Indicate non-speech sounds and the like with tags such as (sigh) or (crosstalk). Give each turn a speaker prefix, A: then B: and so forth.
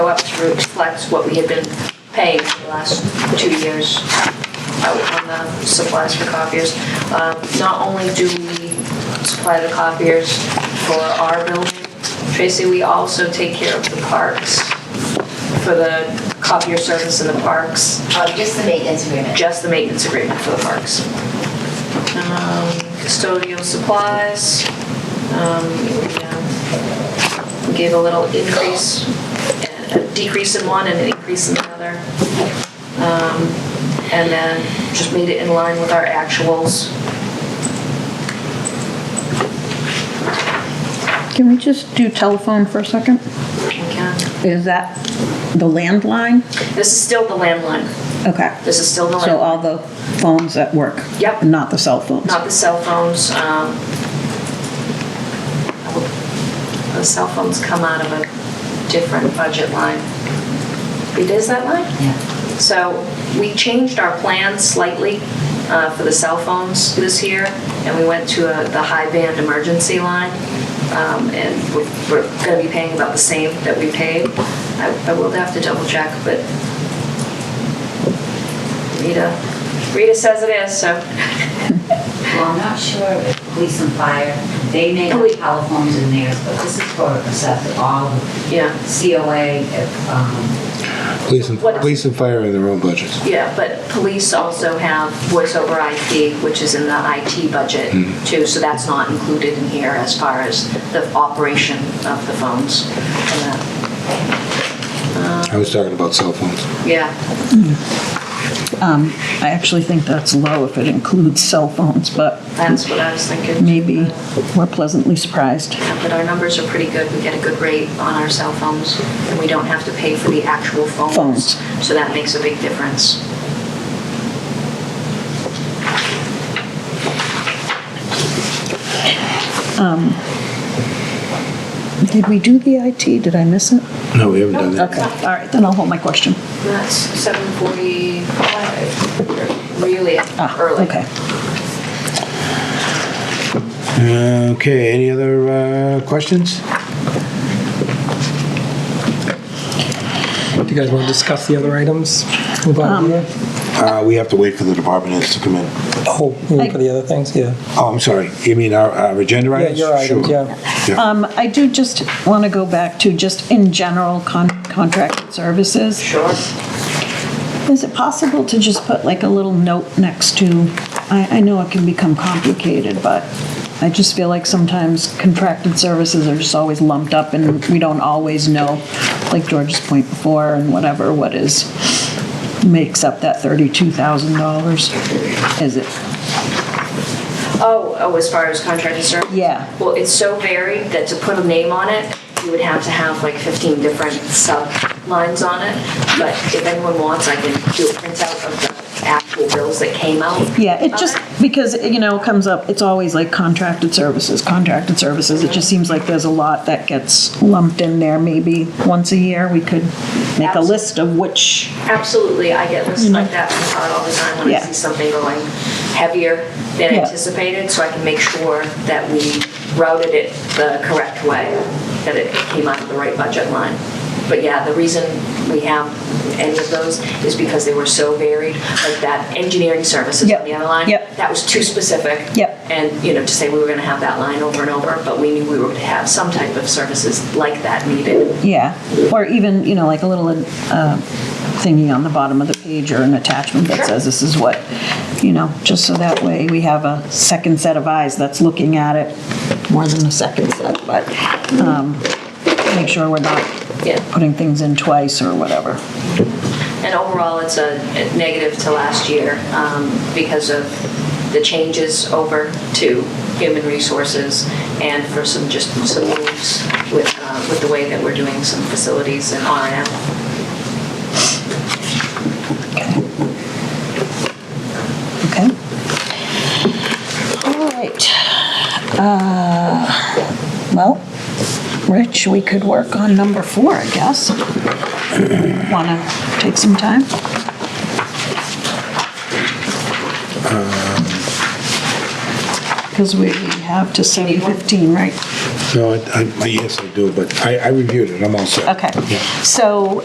A: reflects what we had been paying for the last two years out on the supplies for copiers. Um, Not only do we supply the copiers for our building, Tracy, we also take care of the parks for the copier service in the parks
B: Oh, just the maintenance agreement.
A: just the maintenance agreement for the parks. Um, Custodial supplies, um, we, uh, we gave a little increase, a decrease in one and an increase in the other. Um, And then just made it in line with our actuals.
C: Can we just do telephone for a second?
A: Okay.
C: Is that the landline?
A: This is still the landline,
C: Okay.
A: this is still the
C: So
A: landline,
C: all the phones at work?
A: Yep.
C: Not the cell phones?
A: not the cell phones. um, The cell phones come out of a different budget line. It is that line?
B: Yeah.
A: So we changed our plan slightly uh, for the cell phones this year, and we went to a- the high band emergency line. um, And we're- we're going to be paying about the same that we paid. I I will have to double check, but Rita, Rita says it is, so.
B: Well, I'm not sure if police and fire, they may
A: Oh, we-
B: have telephones in theirs, but this is for except all
A: Yeah,
B: COA, um,
D: Police and,
A: What-
D: police and fire in their own budgets.
A: yeah, but police also have voice over IP, which is in the IT budget too, so that's not included in here as far as the operation of the phones Uh, and that.
D: I was talking about cell phones.
A: Yeah,
C: Um, I actually think that's low if it includes cell phones, but
A: that's what I was thinking.
C: maybe we're pleasantly surprised.
A: Yeah, But our numbers are pretty good. We get a good rate on our cell phones, and we don't have to pay for the actual phones.
C: Phones.
A: So that makes a big difference.
C: Did we do the IT? Did I miss it?
D: No, we haven't done that.
C: Okay, all right, then I'll hold my question.
A: That's 7:45, really
C: Ah,
A: early.
C: Okay.
D: Okay, any other uh, questions?
E: Do you guys want to discuss the other items? Move on here?
D: Uh, We have to wait for the department heads to come in.
E: Oh, you mean for the other things, yeah.
D: Oh, I'm sorry, you mean our- our agenda
E: Yeah,
D: items?
E: your
D: Sure.
E: items, yeah.
D: Yeah.
C: Um, I do just want to go back to just in general con- contracted services.
A: Sure.
C: Is it possible to just put like a little note next to, I, I know it can become complicated, but I just feel like sometimes contracted services are just always lumped up and we don't always know, like George's point before and whatever, what is, makes up that thirty-two thousand dollars? Is it,
A: Oh, oh, as far as contracted service?
C: Yeah.
A: Well, it's so varied that to put a name on it, you would have to have like 15 different sub-lines on it. But if anyone wants, I can do a printout of the actual bills that came out.
C: yeah, it just, because, you know, it comes up, it's always like contracted services, contracted services. It just seems like there's a lot that gets lumped in there. Maybe once a year, we could make a
A: Absolutely.
C: list of which
A: Absolutely, I get lists like that from Todd all the time when I
C: Mm-hmm. Yeah.
A: see something going heavier than
C: Yeah.
A: anticipated, so I can make sure that we routed it the correct way, that it came out of the right budget line. But yeah, the reason we have any of those is because they were so varied, like that engineering services on
C: Yep,
A: the other line.
C: yep.
A: That was too specific.
C: Yep.
A: And, you know, to say we were gonna have that line over and over, but we knew we were gonna have some type of services like that needed.
C: Yeah, or even, you know, like a little uh, thingy on the bottom of the page or an attachment that
A: Sure.
C: says this is what, you know, just so that way we have a second set of eyes that's looking at it, more than a second set, but um, make sure we're not
A: Yeah.
C: putting things in twice or whatever.
A: And overall, it's a negative to last year um, because of the changes over to human resources and for some, just some moves with, uh, with the way that we're doing some facilities and R and M.
C: Okay. All right. Uh, Well, Rich, we could work on number four, I guess. (clears throat) Want to take some time? Because Um. we have to 7:15, right?
D: No, I- I- yes, I do, but I I reviewed it, I'm all set.
C: Okay.
D: Yeah.
C: So